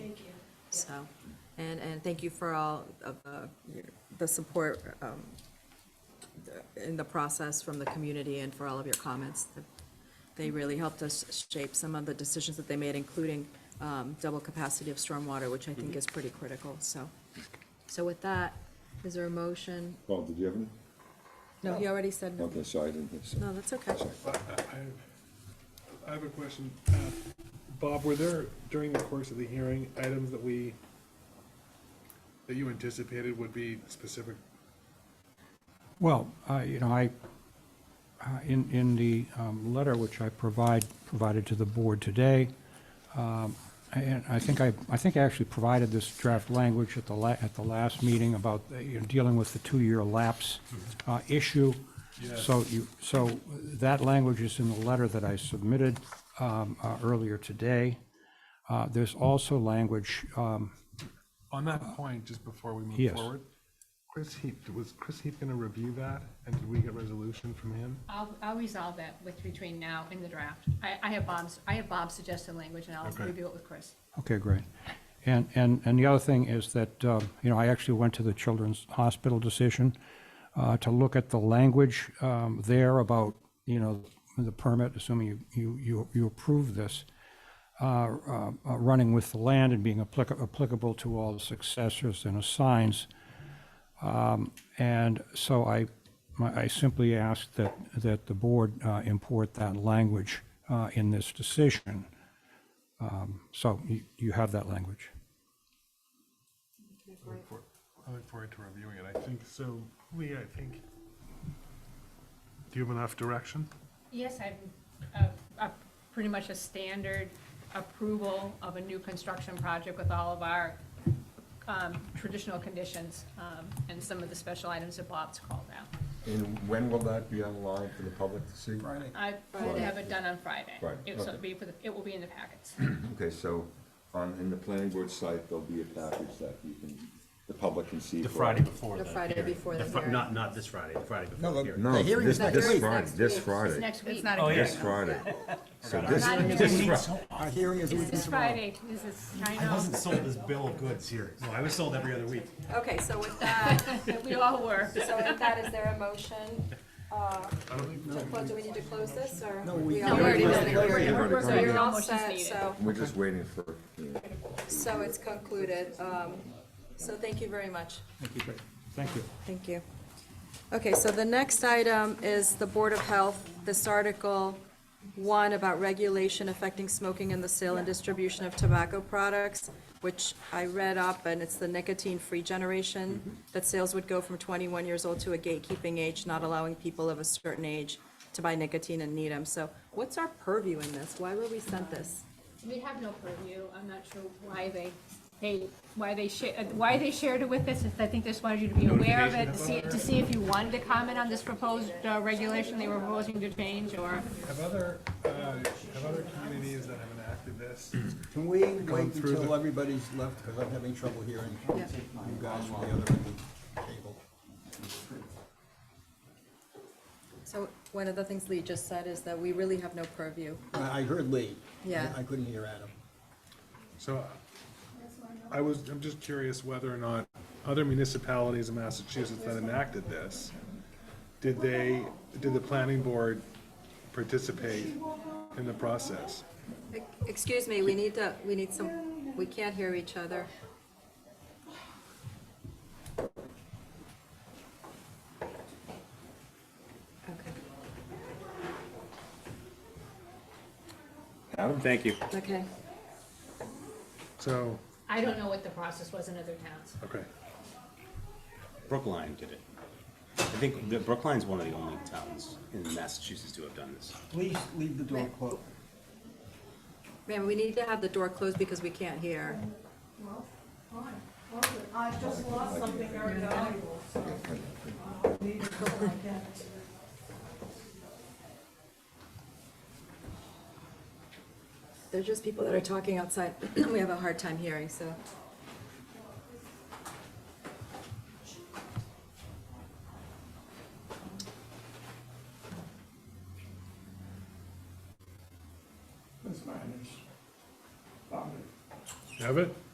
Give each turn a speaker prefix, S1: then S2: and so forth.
S1: So, and, and thank you for all of uh, your- the support um, the- in the process from the community and for all of your comments. They really helped us shape some of the decisions that they made, including um, double capacity of stormwater, which I think is pretty critical, so. So with that, is there a motion?
S2: Paul, did you have any?
S1: No, he already said no.
S2: Okay, so I didn't hear, so,
S1: No, that's okay.
S3: I have a question. Uh, Bob, were there, during the course of the hearing, items that we, that you anticipated would be specific?
S4: Well, I, you know, I, uh, in, in the um, letter which I provide, provided to the board today, um, and I think I, I think I actually provided this draft language at the la, at the last meeting about, uh, you know, dealing with the two-year lapse
S3: Mm-hmm.
S4: uh, issue. So you, so that language is in the letter that I submitted um, uh, earlier today. Uh, There's also language, um,
S3: On that point, just before we move
S4: Yes.
S3: forward, Chris Heath, was Chris Heath going to review that? And did we get resolution from him?
S5: I'll, I'll resolve that with, between now and the draft. I, I have Bob's, I have Bob's suggested language, and I'll
S3: Okay.
S5: review it with Chris.
S4: Okay, great. And, and, and the other thing is that, um, you know, I actually went to the Children's Hospital decision uh, to look at the language um, there about, you know, the permit, assuming you, you, you you approve this, uh, uh, uh, running with the land and being applica- applicable to all the successors and assigns. Um, And so I, my- I simply asked that, that the board uh, import that language uh, in this decision. So you, you have that language.
S3: I look for- I look forward to reviewing it. I think so. Lee, I think. Do you have enough direction?
S5: Yes, I'm, uh, uh, pretty much a standard approval of a new construction project with all of our, um, traditional conditions, um, and some of the special items that Bob's called out.
S2: and when will that be online for the public to see? Friday.
S5: I will have it done on Friday.
S2: Right,
S5: It- so
S2: okay.
S5: It'll be, for the- it will be in the packets.
S2: Okay, so on, in the planning board site, there'll be a package that you can, the public can see.
S6: The
S2: for-
S6: Friday before
S1: The
S6: the.
S1: Friday
S6: hearing.
S1: before the
S6: fri-
S1: hearing.
S6: Not, not this Friday, the Friday before the
S7: the-
S6: hearing.
S2: No,
S7: The hearing's
S2: this,
S7: not
S2: this
S7: hearing.
S2: Friday, this
S5: It's
S2: Friday,
S5: next week.
S6: Oh,
S2: this
S6: yeah.
S2: Friday. So this,
S5: Not even-
S2: this Fri-
S7: Our hearing is a week
S5: This
S7: from tomorrow.
S5: Friday, this is, I
S6: I
S5: know,
S6: wasn't sold this bill of goods here. No, I was sold every other week.
S1: Okay, so with that,
S5: we all were.
S1: so with that, is there a motion? uh, to close- Do we need to close this, or? we all-
S5: No, we already did it.
S2: We're already
S5: We're-
S2: done.
S5: we're-
S1: So you're
S5: no
S1: all
S5: motions
S1: set,
S5: needed.
S1: so,
S2: we're just waiting for, you know,
S1: so it's concluded. Um, So thank you very much.
S4: Thank you, Thank you.
S1: Thank you. Okay, so the next item is the Board of Health, this Article One about regulation affecting smoking and the sale and distribution of tobacco products, which I read up, and it's the nicotine-free
S4: Mm-hmm.
S1: generation, that sales would go from twenty-one years old to a gatekeeping age, not allowing people of a certain age to buy nicotine and need them. So what's our purview in this? Why were we sent this?
S5: We have no purview, I'm not sure why they, they, why they sha, uh, why they shared it with us, is I think they just wanted you to be aware of it, to see, to see if you wanted to comment on this proposed, uh, regulation they were proposing to change, or,
S3: Have other, uh, have other communities that have enacted this
S7: Can we
S3: Going
S7: wait
S3: through the-
S7: until everybody's left, because I'm having trouble hearing you guys from the other end of the table?
S1: So one of the things Lee just said is that we really have no purview.
S7: I I heard Lee. I-
S1: Yeah.
S7: I couldn't hear Adam.
S3: So I was, I'm just curious whether or not other municipalities in Massachusetts that enacted this, did they, did the planning board participate in the process?
S1: Excuse me, we need to, we need some, we can't hear each other. Okay,
S2: Adam?
S8: Thank you.
S1: okay.
S3: So,
S5: I don't know what the process was in other towns.
S3: okay.
S8: Brookline did it. I think that Brookline's one of the only towns in Massachusetts to have done this.
S7: Please leave the door closed.
S1: Ma'am, we need to have the door closed because we can't hear.
S9: I just lost something very valuable, so uh, I need to go like that.
S1: They're just people that are talking outside. We have a hard time hearing, so.
S3: Have it?